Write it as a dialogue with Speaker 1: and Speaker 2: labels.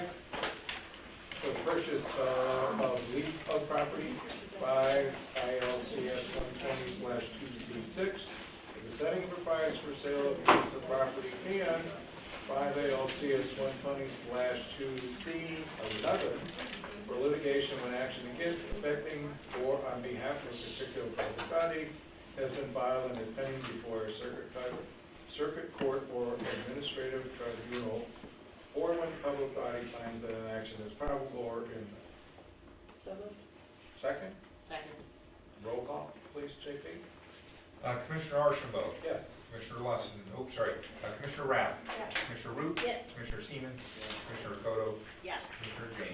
Speaker 1: purchase uh, of lease of property by ILCS one twenty two C six. The setting for price for sale of lease of property and five ILCS one twenty two C another for litigation when action against affecting or on behalf of a particular public body has been filed and is pending before a circuit court, circuit court or administrative tribunal, or when public body finds that an action is probable or in
Speaker 2: So moved.
Speaker 1: second.
Speaker 2: Second.
Speaker 1: Roll call, please, JP.
Speaker 3: Uh, Commissioner Archibald,
Speaker 1: Yes.
Speaker 3: Commissioner Lawson, oh, sorry, uh, Commissioner Rapp,
Speaker 2: Yes.
Speaker 3: Commissioner Root,
Speaker 2: Yes.
Speaker 3: Commissioner Seaman, Commissioner Coto,
Speaker 2: Yes.
Speaker 3: Commissioner James.